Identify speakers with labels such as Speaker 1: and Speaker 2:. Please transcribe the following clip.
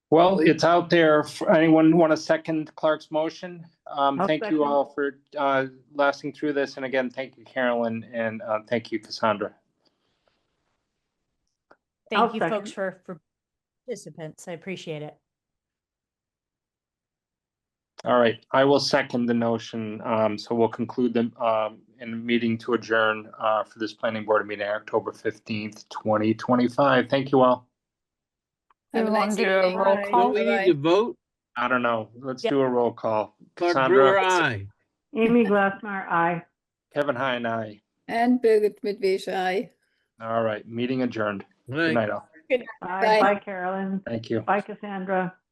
Speaker 1: Well, it's out there. If Anyone want to second Clark's motion? Um,
Speaker 2: I'll
Speaker 1: thank
Speaker 2: second.
Speaker 1: you all for, uh, lasting through this. And again, thank you, Carolyn, and, uh, thank you, Cassandra.
Speaker 2: I'll
Speaker 3: Thank you folks
Speaker 2: second.
Speaker 3: for, for participants. I appreciate it.
Speaker 1: All right, I will second the notion. Um, so we'll conclude the, um, in meeting to adjourn, uh, for this planning board meeting, October fifteenth, twenty twenty-five. Thank you all.
Speaker 4: Have a nice evening.
Speaker 2: Bye.
Speaker 5: Don't we need to vote?
Speaker 1: I don't know. Let's
Speaker 3: Yeah.
Speaker 1: do a roll call.
Speaker 5: Clark Brewer,
Speaker 1: Cassandra,
Speaker 5: aye.
Speaker 2: Amy Glassmar, aye.
Speaker 1: Kevin Hine, aye.
Speaker 4: And Birgit Midvesh, aye.
Speaker 1: All right, meeting adjourned. Good
Speaker 5: Aye.
Speaker 1: night all.
Speaker 2: Bye,
Speaker 4: Bye.
Speaker 2: bye Carolyn,
Speaker 1: Thank you.
Speaker 2: bye Cassandra.